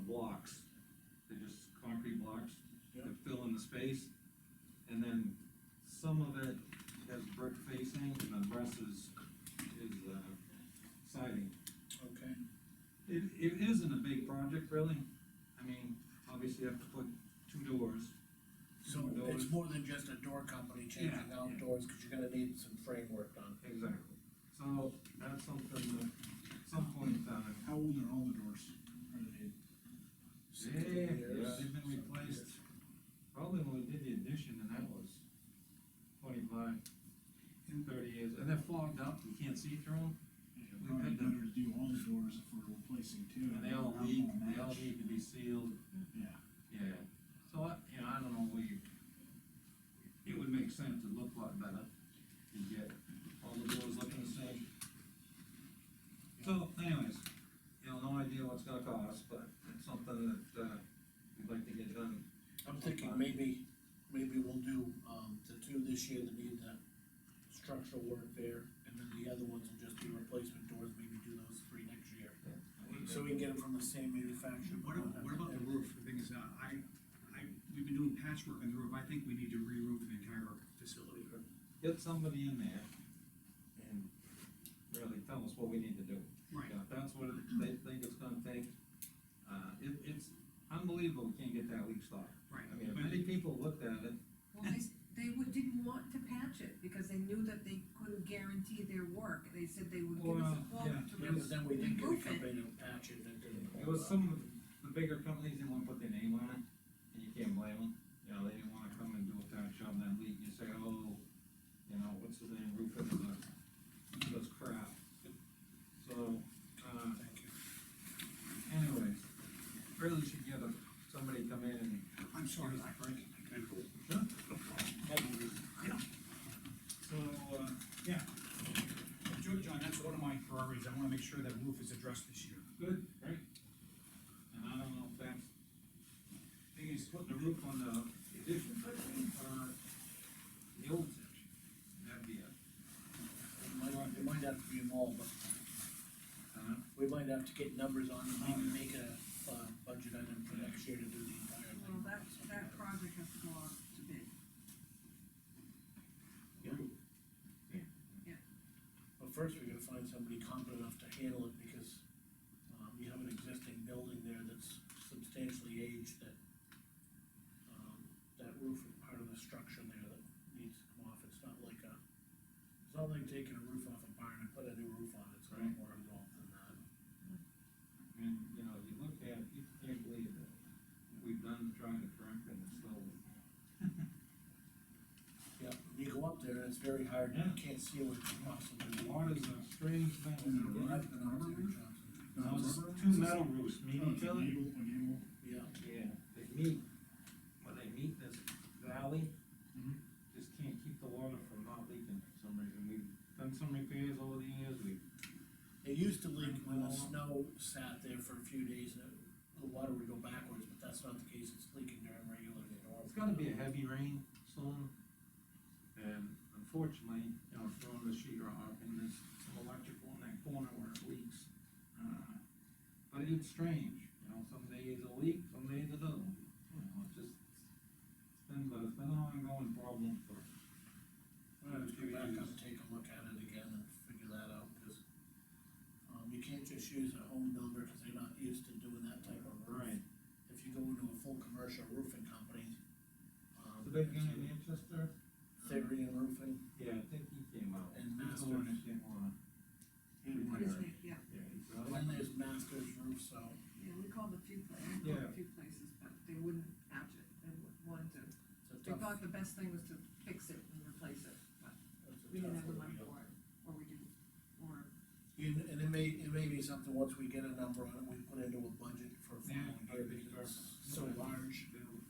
blocks. They're just concrete blocks Yep. that fill in the space. And then some of it has brick facing and the rest is, is, uh, siding. Okay, It, it isn't a big project really. I mean, obviously you have to put two doors. so More doors. it's more than just a door company changing Yeah. out doors, cause you're gonna need some framework done. Exactly. So that's something that, some point in time, How old are all the doors? Are they, Yeah, yeah, they've been replaced, probably when we did the addition, and that was twenty-five, thirty years, and they're fogged up, you can't see through them, yeah, probably had them. better to do all the doors if we're replacing two. and they all Not leak, they all match. need to be sealed, Yeah, yeah. So I, you know, I don't know, we, it would make sense to look a lot better, and get all the doors looking the same. So anyways, you know, no idea what's gonna cost, but it's something that, uh, we'd like to get done I'm thinking maybe, maybe we'll do, um, the two this year that need the structural work there, and then the other ones will just be replacement doors, maybe do those three next year. So we can get them from the same manufacturer. What about, what about the roof? The thing is, uh, I, I, we've been doing patchwork on the roof, I think we need to re-roof the entire facility. get somebody in there and really tell us what we need to do. Right. Now, If that's what it- they think it's gonna take, uh, it, it's unbelievable, we can't get that leak stopped. Right. I mean, if But- many people looked at it, Well, they, s- they would, didn't want to patch it, because they knew that they couldn't guarantee their work, they said they would give us Well, a quote yeah, Yeah, to but remove then we did get a Roof it. company to patch it, uh, and it didn't. it was some of the bigger companies didn't wanna put their name on it, and you can't blame them. You know, they didn't wanna come and do a patch on that leak, and you say, oh, you know, what's the name, roof it, does crap. So, uh, Thank you. anyways, really should get a, somebody come in and I'm sorry, I, Frank. Sure. So, uh, yeah. Jo- John, that's one of my priorities, I wanna make sure that roof is addressed this year. Good, great. And I don't know if that's, thing is, putting the roof on the addition, or the old section, that'd be a, It might, it might have to be involved, but uh, we might have to get numbers on, and maybe make a, uh, budget item for next year to do the entire thing. Well, that, that project has to go out to bid. But first, we gotta find somebody competent enough to handle it, because, um, you have an existing building there that's substantially aged, that, um, that roof is part of the structure there that needs to come off, it's not like a, it's not like taking a roof off a barn and put a new roof on, it. it's a lot Right. more involved than that. and, you know, you look at it, you can't believe that we've done trying to correct and it's still. Yeah, when you go up there, it's very hard, you Yeah. can't see what you possibly. Water's a strange thing. Is it a rock? I've been out there, Johnson. No, it's Rubber? two metal roofs Oh, meeting it's each other. enable- enable. Yeah, Yeah, they meet, when they meet this valley, Mhm. just can't keep the water from not leaking for some reason. We've done some repairs over the years, we, it used to leak when the snow sat there for a few days, and the water would go backwards, but that's not the case, it's leaking during regular storms. it's gotta be a heavy rain soon. And unfortunately, you know, throwing the sheet rock and there's some electrical in that corner where it leaks. Uh, But it's strange, you know, some days it'll leak, some days it doesn't. You know, it's just, it's been, but it's been an ongoing problem for We'll have to go back up, take a look at it again and figure that out, cause, um, you can't just use a home builder, cause they're not used to doing that type of roof. Right. If you go into a full commercial roofing company, um. The big guy in Manchester? Therian Roofing, Yeah, I think he came out. And He's the Masters. one that came on. and What is it, yeah, Yeah, he's the then one. there's Masters Roof, so, yeah, we called a few places, we called Yeah. a few places, but they wouldn't patch it, they wa- wanted to, it's a they tough, thought the best thing was to fix it and replace it, but it's a we didn't tough have the one to money go. for it, or we didn't, or, And, and it may, it may be something, once we get a number on it, we put into a budget for Yeah, following year, I'd be because it's so sure. large They were-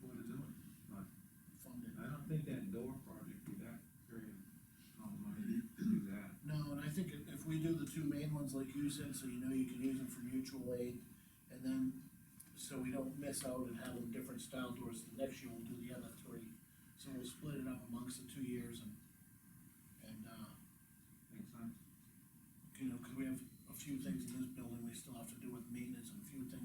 What it doing? funded. I don't think that door project would that very, not money to do that. No, and I think if, if we do the two main ones like you said, so you know you can use them for mutual aid, and then, so we don't miss out and have them different style doors, the next year we'll do the other three. So we'll split it up amongst the two years and, and, uh, Makes sense. you know, cause we have a few things in this building we still have to do with maintenance and a few